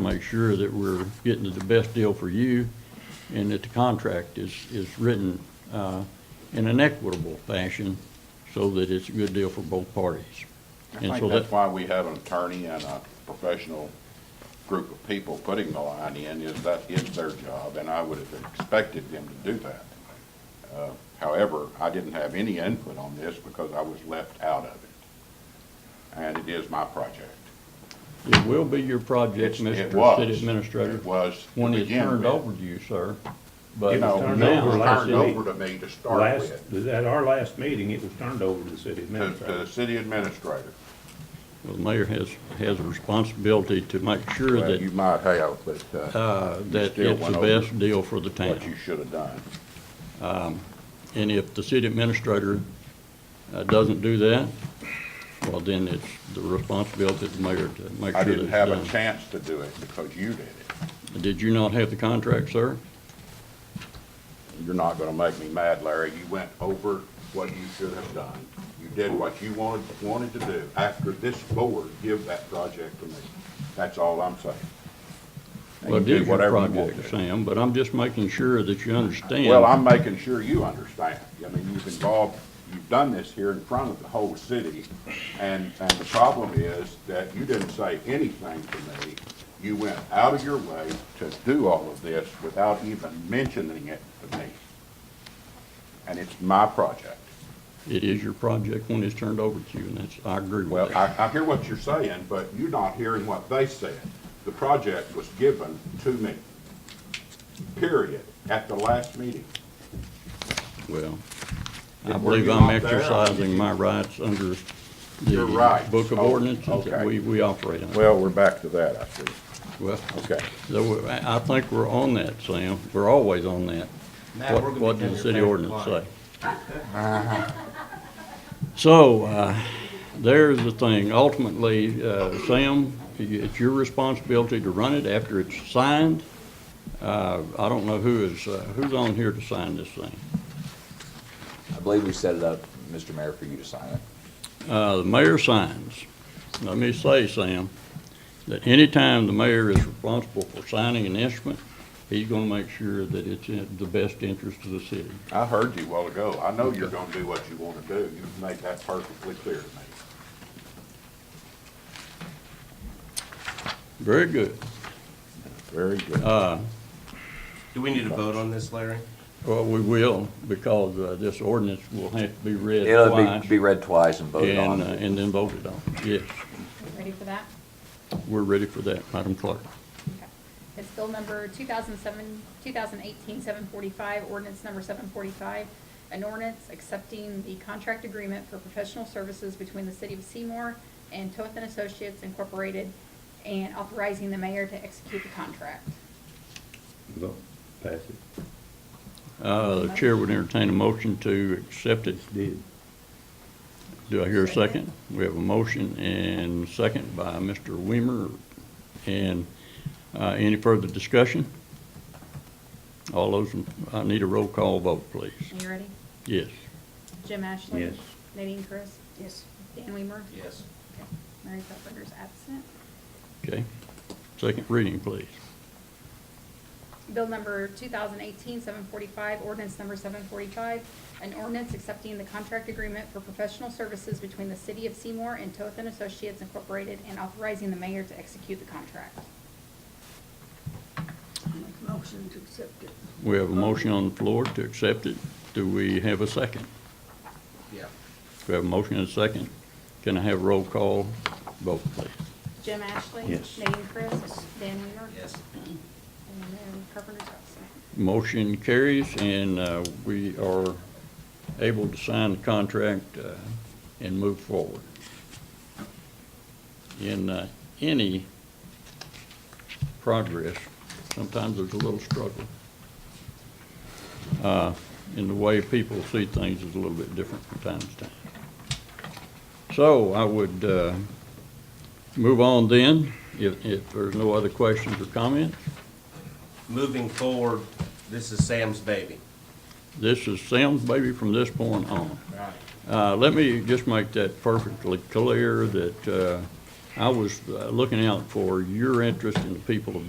make sure that we're getting the best deal for you and that the contract is, is written uh, in an equitable fashion so that it's a good deal for both parties. I And think so that's that, why we have an attorney and a professional group of people putting the line in, is that is their job, and I would have expected them to do that. Uh, However, I didn't have any input on this because I was left out of it. And it is my project. it will be your project, It's- it Mr. was. City Administrator, It was. to when it's begin turned with. over to you, sir. But You know, it turned over was last turned week. over to me to start Last, with, at our last meeting, it was turned over to the city to, to the administrator. city administrator. well, the mayor has, has a responsibility to make sure Well, you that, might have, but, uh, uh, that still it's went the over best deal for the what you town. should have done. And if the city administrator uh, doesn't do that, well, then it's the responsibility of the mayor to make I sure that didn't it's have a done. chance to do it because you did it. Did you not have the contract, sir? You're not gonna make me mad, Larry. You went over what you should have done. You did what you wanted, wanted to do. After this board, give that project to me. That's all I'm saying. And Well, you it is your whatever you want project, to. Sam, but I'm just making sure that you understand. Well, I'm making sure you understand. I mean, you've involved, you've done this here in front of the whole city, and, and the problem is that you didn't say anything to me. You went out of your way to do all of this without even mentioning it to me. And it's my project. It is your project when it's turned over to you, and that's, I agree with Well, that. I, I hear what you're saying, but you're not hearing what they said. The project was given to me, period, at the last meeting. Well, Were I believe you I'm not there? exercising my rights under Your the rights. book of Oh, ordinances that okay. we, we operate under. Well, we're back to that, I see. Well, Okay. so we- I I think we're on that, Sam. We're always on that. Matt, What- we're gonna What be does the down city here ordinance playing say? So, uh, there's the thing. Ultimately, uh, Sam, it's your responsibility to run it after it's signed. Uh, I don't know who is, uh, who's on here to sign this thing. I believe we set it up, Mr. Mayor, for you to sign it. Uh, The mayor signs. Let me say, Sam, that anytime the mayor is responsible for signing an instrument, he's going to make sure that it's in the best interest of the city. I heard you a while ago. I know you're gonna do what you wanna do. You've made that perfectly clear to me. Very good. Very good. Uh, Do we need to vote on this, Larry? Well, we will, because uh, this ordinance will have to be read It'll be, be twice read twice and voted and, uh, on. and then voted on. Yes, Ready for that? we're ready for that, Madam Clerk. Okay. It's bill number 2007, 2018-745, ordinance number 745, an ordinance accepting the contract agreement for professional services between the City of Seymour and Toth and Associates Incorporated, and authorizing the mayor to execute the contract. Vote, pass it, Uh, The chair would entertain a motion to accept it. did. Do I hear a second? Second. We have a motion and second by Mr. Weimer. And uh, any further discussion? All those, in- I need a roll call vote, please. Are you ready? Yes. Jim Ashley? Yes. Nadine Chris? Yes. Dan Weimer? Yes. Okay. Mary Pfefferger's absent. Okay. Second reading, please. Bill number 2018-745, ordinance number 745, an ordinance accepting the contract agreement for professional services between the City of Seymour and Toth and Associates Incorporated and authorizing the mayor to execute the contract. Make a motion to accept it. We have a motion on the floor to accept it. Do we have a second? Yeah. We have a motion and a second. Can I have roll call vote, please? Jim Ashley? Yes. Nadine Chris? Dan Weaver? Yes. And Mayor Carpenter's absent. Motion carries, and uh, we are able to sign the contract uh, and move forward. In uh, any progress, sometimes there's a little struggle. Uh, And the way people see things is a little bit different from time to time. So I would uh, move on then, if if there's no other questions or comments. Moving forward, this is Sam's baby. This is Sam's baby from this point on. Right. Uh, Let me just make that perfectly clear that uh, I was uh, looking out for your interest in the people of